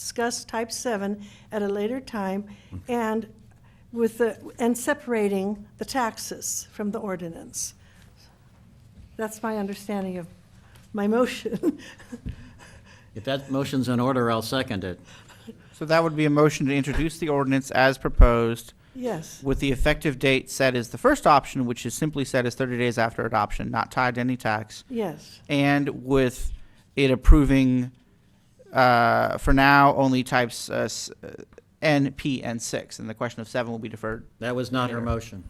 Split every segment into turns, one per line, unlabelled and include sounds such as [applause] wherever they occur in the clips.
discuss type seven at a later time and with the, and separating the taxes from the ordinance. That's my understanding of my motion. [laughs]
If that motion's in order, I'll second it.
So that would be a motion to introduce the ordinance as proposed
Yes,
with the effective date set as the first option, which is simply set as thirty days after adoption, not tied to any tax.
yes,
and with it approving, uh, for now, only types uh, s- uh, N, P, and six, and the question of seven will be deferred.
That was not her motion.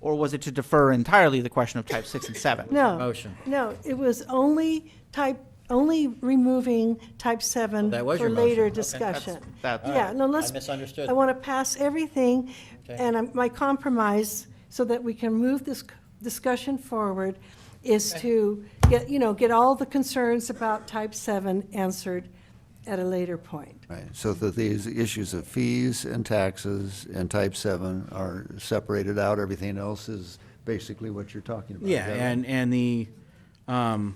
Or was it to defer entirely the question of type six and seven?
no.
Motion.
No, it was only type, only removing type seven
Oh, That was
for
your motion.
later
Okay.
discussion.
That's- that's-
Yeah, no,
All right.
let's.
I misunderstood.
I want to pass everything
Okay.
and I'm- my compromise so that we can move this c- discussion forward is to get, you know, get all the concerns about type seven answered at a later point.
Right, so that these issues of fees and taxes and type seven are separated out, everything else is basically what you're talking about.
Yeah, and, and the, um,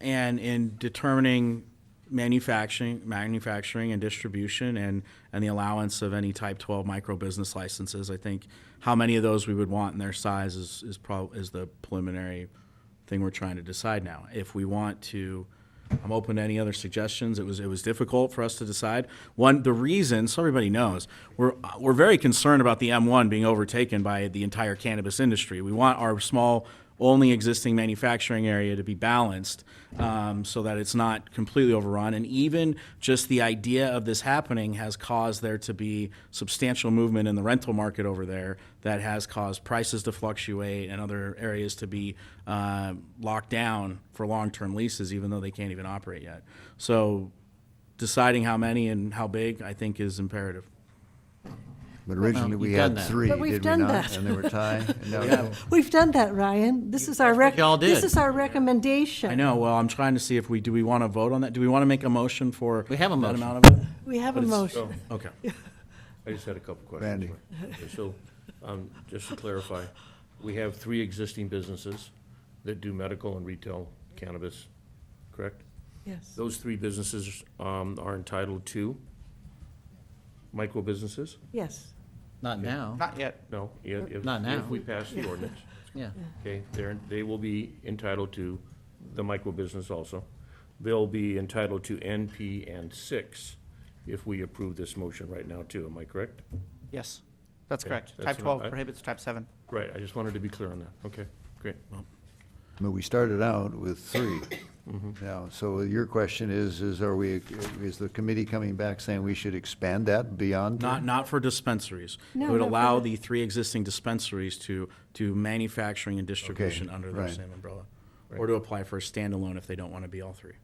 and in determining manufacturing, manufacturing and distribution and, and the allowance of any type twelve micro business licenses, I think how many of those we would want and their size is, is prob, is the preliminary thing we're trying to decide now. If we want to, I'm open to any other suggestions. It was, it was difficult for us to decide. One, the reason, so everybody knows, we're, we're very concerned about the M1 being overtaken by the entire cannabis industry. We want our small, only existing manufacturing area to be balanced um, so that it's not completely overrun. And even just the idea of this happening has caused there to be substantial movement in the rental market over there that has caused prices to fluctuate and other areas to be uh, locked down for long term leases, even though they can't even operate yet. So deciding how many and how big, I think, is imperative.
But originally,
Well,
we
you've done
had
that.
three,
But
did
we've
we
done
not?
that.
And they
[laughs]
were tied, and now,
We've done that, Ryan. This is our rec.
y'all
This
did.
is our recommendation.
I know. Well, I'm trying to see if we do we want to vote on that? Do we want to make a motion for
We have a
that
motion.
amount of it?
We have a
But it's-
motion.
oh, Okay.
I just had a couple questions.
Randy.
Okay, So, um, just to clarify, we have three existing businesses that do medical and retail cannabis, correct?
Yes,
Those three businesses um, are entitled to micro businesses?
yes.
Not now.
Not yet.
No? If- if-
Not now.
If we pass the ordinance,
Yeah.
okay, they're, they will be entitled to the micro business also. They'll be entitled to NP and six if we approve this motion right now too, am I correct?
Yes, that's
Okay,
correct.
that's
Type
what
twelve
I-
prohibits type seven.
Right, I just wanted to be clear on that. Okay, great.
but we started out with three. Now, so your question is, is are we, is the committee coming back saying we should expand that beyond? three?
Not, not for dispensaries. It
No,
would
not for
allow
the-
the three existing dispensaries to do manufacturing and distribution under their
right.
same umbrella. Or to apply for a standalone if they don't want to be all three.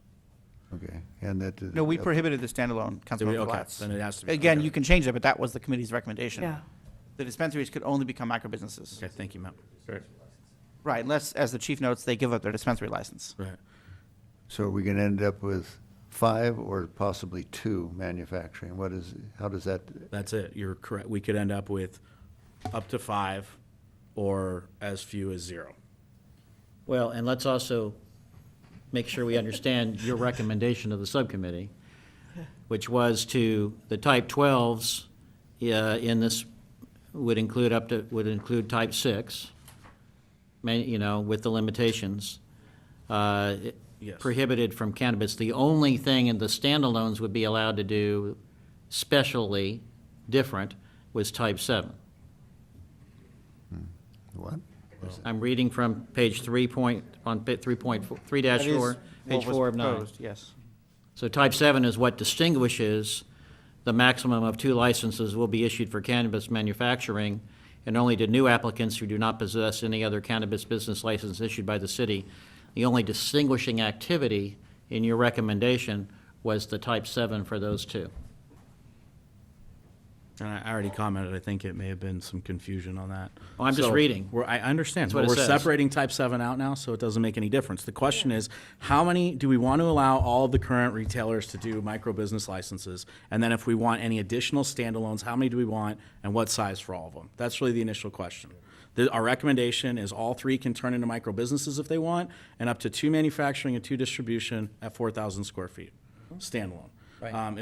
Okay, and that.
No, we prohibited the standalone,
Did we-
Councilmember
Okay,
Latz.
then it has to be.
Again,
okay.
you can change that, but that was the committee's recommendation.
Yeah.
The dispensaries could only become micro businesses.
Okay, thank you, Matt.
Right.
Right, unless, as the chief notes, they give up their dispensary license.
Right.
So are we gonna end up with five or possibly two manufacturing? What is, how does that,
That's it. You're correct. We could end up with up to five or as few as zero.
Well, and let's also make sure we understand your recommendation of the subcommittee, which was to, the type 12s uh, in this would include up to, would include type 6, ma- you know, with the limitations. uh,
Yes.
Prohibited from cannabis. The only thing in the standalones would be allowed to do specially different was type 7.
what?
I'm reading from page three point, on pa- three point, four- three dash
That is
four,
what
page
was
four of nine.
proposed, Yes.
So type seven is what distinguishes the maximum of two licenses will be issued for cannabis manufacturing and only to new applicants who do not possess any other cannabis business license issued by the city. The only distinguishing activity in your recommendation was the type seven for those two.
And I I already commented, I think it may have been some confusion on that.
Oh, I'm just
So,
reading.
We're, I understand,
That's what
but
it
we're
says.
separating type seven out now, so it doesn't make any difference. The question is, how many, do we want to allow all of the current retailers to do micro business licenses? And then if we want any additional standalones, how many do we want and what size for all of them? That's really the initial question. The, our recommendation is all three can turn into micro businesses if they want and up to two manufacturing and two distribution at four thousand square feet standalone.
Right.
Um,